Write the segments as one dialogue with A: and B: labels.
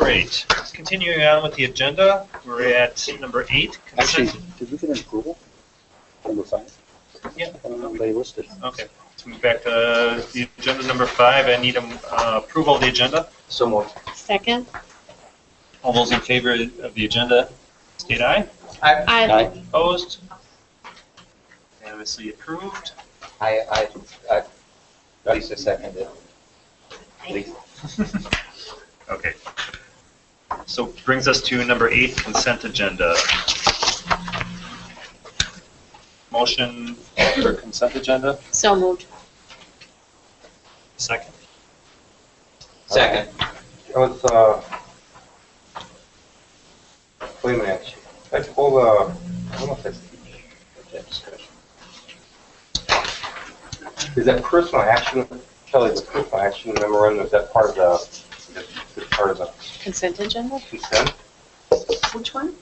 A: right, continuing on with the agenda, we're at number eight.
B: Actually,
A: consent-
B: did we get an approval from the science?
A: Yeah.
B: I don't know if they listed.
A: Okay, let's move back to the agenda number five. I need um, uh, approval of the agenda.
C: So moved.
D: Second?
A: All those in favor of the agenda, state aye.
D: I
A: Opposed? Unanimously approved.
C: I, I, I, Lisa seconded. Lisa.
A: Okay. So brings us to number eight, consent agenda. Motion for consent agenda,
D: So moved.
A: second.
C: Second.
E: Let's, uh, wait a minute, let's pull, uh, I don't know if that's, that discussion. Is that personal action, Kelly, the personal action memorandum, is that part of the, is part of the
D: Consent agenda?
E: consent?
D: Which one?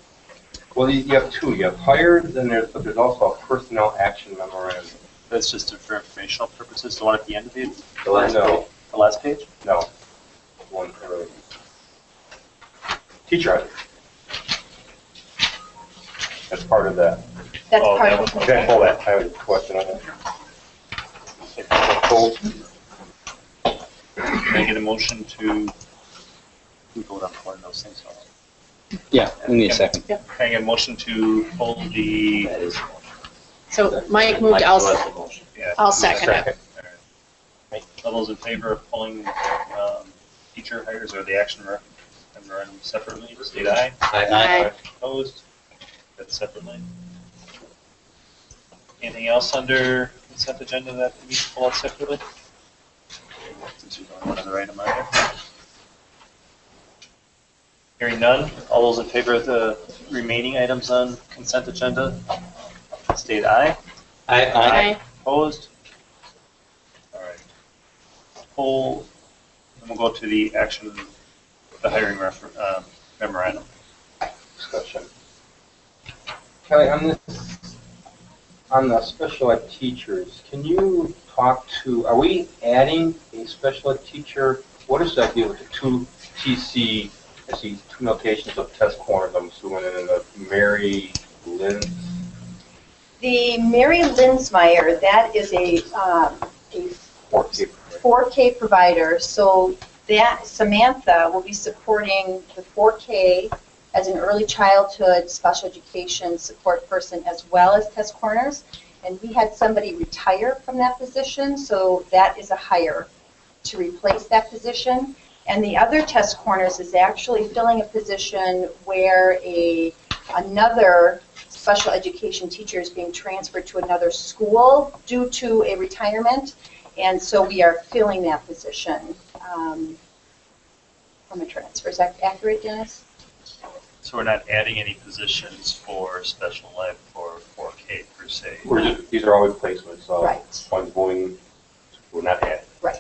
E: Well, you you have two, you have hired, and there's, but there's also a personnel action memorandum.
A: That's just for informational purposes, the one at the end of the,
C: The last
E: No,
A: the last page?
E: no, one earlier. Teacher hire. That's part of that.
D: That's
A: Oh,
D: part
A: that
D: of
A: one.
D: it.
E: Okay, hold that, I have a question on that. Hold.
A: Can I get a motion to we vote on one of those things?
B: Yeah, we need a second.
A: Can I get a motion to hold the,
C: That is.
D: So Mike moved, I'll,
C: Mike was
D: se-
C: the motion.
A: yeah,
D: I'll second it.
A: all those in favor of pulling um, teacher hires or the action mer- memorandum separately, state aye.
C: I,
D: Aye.
A: Opposed? That's separately. Anything else under consent agenda that we need to pull out separately? Since we don't have another item on there. Hearing none, all those in favor of the remaining items on consent agenda, state aye.
C: I,
D: Aye.
A: Opposed? All right. Poll, and we'll go to the action, the hiring refer- uh, memorandum.
E: discussion. Kelly, on this, on the special ed teachers, can you talk to, are we adding a special ed teacher? What does that do with the two TC, I see two notations of test corners, I'm assuming, and then the Mary Lynn?
F: The Mary Lindsmeyer, that is a, um, a
E: or Cape.
F: 4K provider, so that Samantha will be supporting the 4K as an early childhood special education support person as well as test corners. And we had somebody retire from that position, so that is a hire to replace that position. And the other test corners is actually filling a position where a, another special education teacher is being transferred to another school due to a retirement. And so we are filling that position um, from a transfer. Is that accurate, Dennis?
A: So we're not adding any positions for special ed for 4K per se.
E: We're just- These are all replacements, so
F: Right,
E: one's going, we're not adding.
F: right.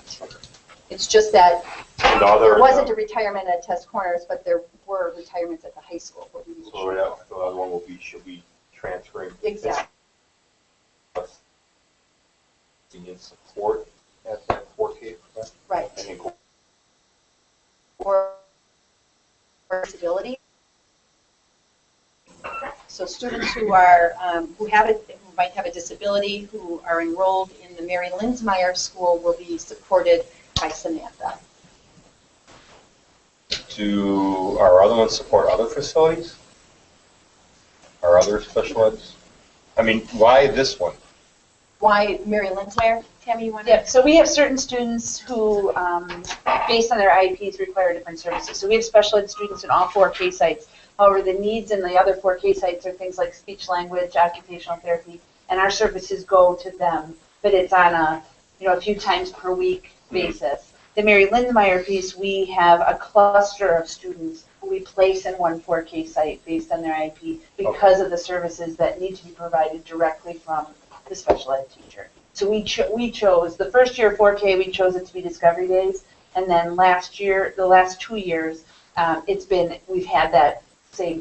F: It's just that
E: And all
F: there
E: there-
F: wasn't a retirement at Test Corners, but there were retirements at the high school. where we
E: So we're not- the other one will be, should be transferring
F: Exactly.
E: in support at that 4K, correct?
F: Right.
E: I think
F: or or disability. So students who are, um, who have, a who might have a disability, who are enrolled in the Mary Lindsmeyer School will be supported by Samantha.
E: Do our other ones support other facilities? Our other special eds? I mean, why this one?
F: Why Mary Lindsmeyer? Tammy, you want to?
G: Yeah, so we have certain students who, um, based on their IEPs, require different services. So we have special ed students in all four K sites. However, the needs in the other four K sites are things like speech language, occupational therapy, and our services go to them, but it's on a, you know, a few times per week basis. The Mary Lindmeyer piece, we have a cluster of students who we place in one four K site based on their IEP because of the services that need to be provided directly from the special ed teacher. So we cho- we chose the first year 4K. We chose it to be Discovery Days, and then last year, the last two years, um, it's been we've had that same